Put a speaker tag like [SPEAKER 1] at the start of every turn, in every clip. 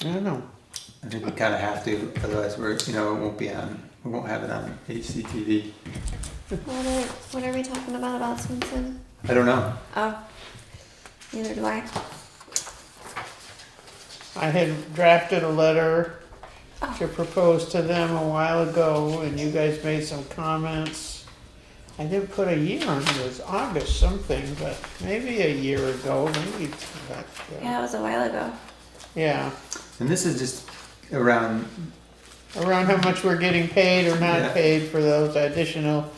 [SPEAKER 1] I don't know.
[SPEAKER 2] I think we kind of have to, otherwise we're, you know, it won't be on, we won't have it on HCTV.
[SPEAKER 3] What are, what are we talking about about Swinson?
[SPEAKER 2] I don't know.
[SPEAKER 3] Oh, neither do I.
[SPEAKER 1] I had drafted a letter
[SPEAKER 3] Oh.
[SPEAKER 1] to propose to them a while ago, and you guys made some comments. I didn't put a year on it, it was August something, but maybe a year ago, maybe. it's back there.
[SPEAKER 3] Yeah, it was a while ago.
[SPEAKER 1] Yeah,
[SPEAKER 2] And this is just around,
[SPEAKER 1] around how much we're getting paid or
[SPEAKER 2] Yeah.
[SPEAKER 1] not paid for those additional,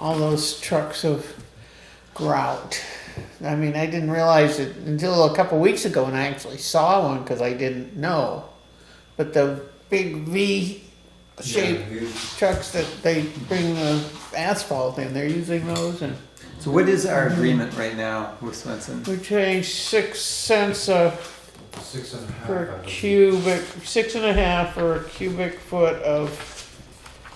[SPEAKER 1] all those trucks of grout. I mean, I didn't realize it until a couple weeks ago when I actually saw one because I didn't know. But the big V shaped trucks that they bring the asphalt in, they're using those and
[SPEAKER 2] so what is our agreement right now with Swenson?
[SPEAKER 1] we changed six cents a
[SPEAKER 4] Six and a half. I
[SPEAKER 1] per
[SPEAKER 4] believe.
[SPEAKER 1] cubic, six and a half or cubic foot of,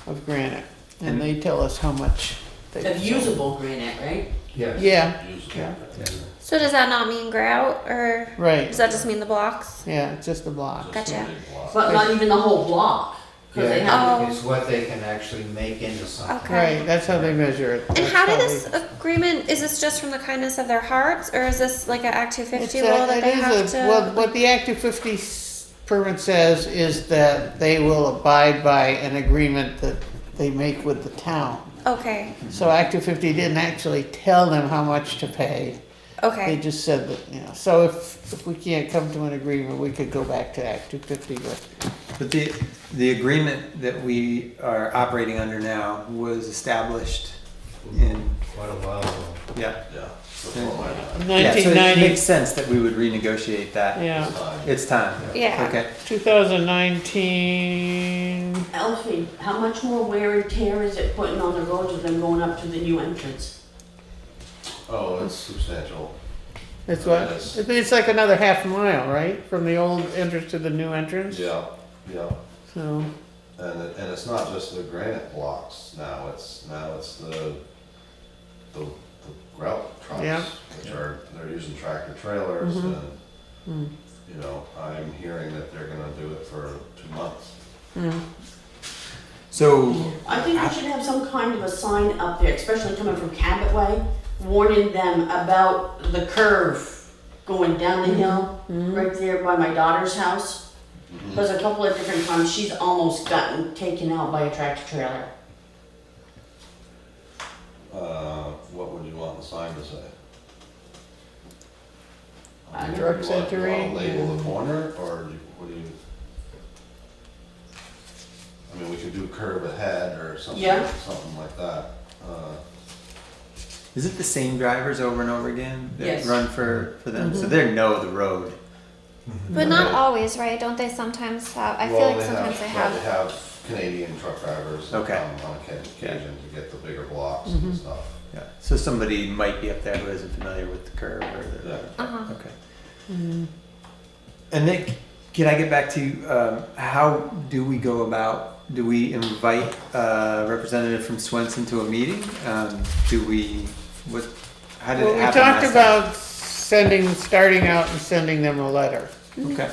[SPEAKER 1] of granite. And they tell us how much they.
[SPEAKER 5] Of usable granite, right?
[SPEAKER 4] Yes.
[SPEAKER 1] Yeah,
[SPEAKER 4] Yeah.
[SPEAKER 1] Oh,
[SPEAKER 3] So does that not mean grout, or
[SPEAKER 1] right,
[SPEAKER 3] does that just mean the blocks?
[SPEAKER 1] yeah, it's just the block.
[SPEAKER 3] Gotcha.
[SPEAKER 5] But not even the whole block, because they have,
[SPEAKER 3] have-
[SPEAKER 4] Yeah, it's what they can actually make into something.
[SPEAKER 3] Okay.
[SPEAKER 1] Right, that's how they measure it.
[SPEAKER 3] And
[SPEAKER 1] That's
[SPEAKER 3] how did
[SPEAKER 1] they-
[SPEAKER 3] this agreement? Is this just from the kindness of their hearts, or is this like an Act Two
[SPEAKER 1] It's
[SPEAKER 3] Fifty
[SPEAKER 1] a-
[SPEAKER 3] rule that
[SPEAKER 1] it
[SPEAKER 3] they
[SPEAKER 1] is
[SPEAKER 3] have
[SPEAKER 1] a-
[SPEAKER 3] to?
[SPEAKER 1] Well, what the Act 250 s- permit says is that they will abide by an agreement that they make with the town.
[SPEAKER 3] okay,
[SPEAKER 1] So Act 250 didn't actually tell them how much to pay. They
[SPEAKER 3] okay,
[SPEAKER 1] just said that, you know, so if, if we can't come to an agreement, we could go back to Act 250, but,
[SPEAKER 2] But the, the agreement that we are operating under now was established in,
[SPEAKER 4] What a while ago.
[SPEAKER 2] yeah. Yeah, so it
[SPEAKER 1] 1990,
[SPEAKER 2] makes sense that we would renegotiate that.
[SPEAKER 1] yeah,
[SPEAKER 2] It's time.
[SPEAKER 3] yeah.
[SPEAKER 2] Okay,
[SPEAKER 1] 2019,
[SPEAKER 5] Alfie, how much more wear and tear is it putting on the roads than going up to the new entrance?
[SPEAKER 6] Oh, it's substantial.
[SPEAKER 1] that's what,
[SPEAKER 6] Yes.
[SPEAKER 1] it's like another half mile, right, from the old entrance to the new entrance?
[SPEAKER 6] Yeah, yeah.
[SPEAKER 1] So,
[SPEAKER 6] And, it- and it's not just the granite blocks now, it's, now it's the, the the grout
[SPEAKER 1] Yeah.
[SPEAKER 6] trucks, which are, they're using tractor trailers and, you know, I'm hearing that they're gonna do it for two months.
[SPEAKER 2] so,
[SPEAKER 5] I think we should have some kind of a sign up there, especially coming from Cabot Way, warning them about the curve going down the hill, right there by my daughter's house. Because a couple of different times, she's almost gotten taken out by a tractor trailer.
[SPEAKER 6] Uh, what would you want the sign to say?
[SPEAKER 5] Uh,
[SPEAKER 6] Do you
[SPEAKER 1] Drugs
[SPEAKER 6] want- do you wanna
[SPEAKER 1] entering
[SPEAKER 6] Label the corner, or do you- what do you? I mean, we could do curve ahead or something,
[SPEAKER 5] Yeah.
[SPEAKER 6] something like that. Uh,
[SPEAKER 2] is it the same drivers over and over again that
[SPEAKER 5] Yes.
[SPEAKER 2] run for, for them? So they know the road.
[SPEAKER 3] But not always, right? Don't they sometimes have? I
[SPEAKER 6] well,
[SPEAKER 3] feel like sometimes they
[SPEAKER 6] They
[SPEAKER 3] have.
[SPEAKER 6] have Canadian truck drivers that
[SPEAKER 2] Okay.
[SPEAKER 6] come on occa-
[SPEAKER 2] Yeah.
[SPEAKER 6] occasion to get the bigger blocks and stuff.
[SPEAKER 2] Yeah, so somebody might be up there who isn't familiar with the curve or the.
[SPEAKER 6] Yeah.
[SPEAKER 3] Uh huh.
[SPEAKER 2] Okay. And Nick, can I get back to, um, how do we go about, do we invite a representative from Swenson to a meeting? Um, do we, what, how did
[SPEAKER 1] well,
[SPEAKER 2] it
[SPEAKER 1] we
[SPEAKER 2] happen
[SPEAKER 1] talked
[SPEAKER 2] last
[SPEAKER 1] about sending, starting out and sending them a letter.
[SPEAKER 2] time? Okay,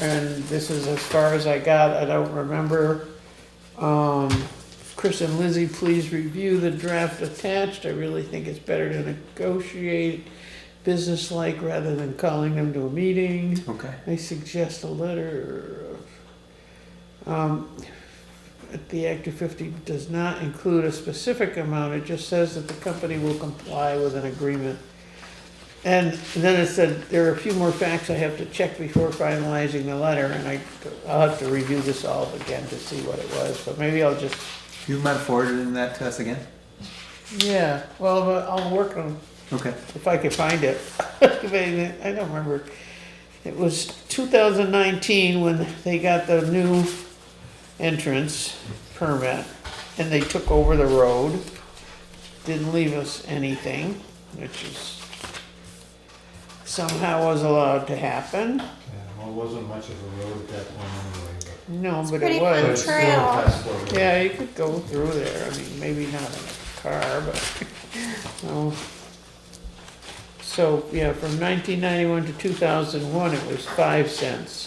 [SPEAKER 1] and this is as far as I got, I don't remember. Um, Chris and Lizzie, please review the draft attached, I really think it's better to negotiate businesslike rather than calling them to a meeting.
[SPEAKER 2] okay.
[SPEAKER 1] I suggest a letter of, um, that the Act of fifty does not include a specific amount, it just says that the company will comply with an agreement. And then it said, there are a few more facts I have to check before finalizing the letter, and I, I'll have to review this all again to see what it was, but maybe I'll just,
[SPEAKER 2] Do you mind forwarding that to us again?
[SPEAKER 1] yeah, well, but I'll work on
[SPEAKER 2] Okay,
[SPEAKER 1] if I could find it. If I I don't remember. It was 2019 when they got the new entrance permit and they took over the road. Didn't leave us anything, which is somehow was allowed to happen.
[SPEAKER 4] Yeah, well, it wasn't much of a road at that point anyway, but.
[SPEAKER 1] No, but
[SPEAKER 3] pretty
[SPEAKER 1] it
[SPEAKER 4] but
[SPEAKER 3] fun.
[SPEAKER 1] was.
[SPEAKER 4] it's still a
[SPEAKER 3] trail.
[SPEAKER 4] fast forward.
[SPEAKER 1] Yeah, you could go through there. I mean, maybe not in a car, but, no. So, yeah, from nineteen ninety-one to two thousand one, it was five cents.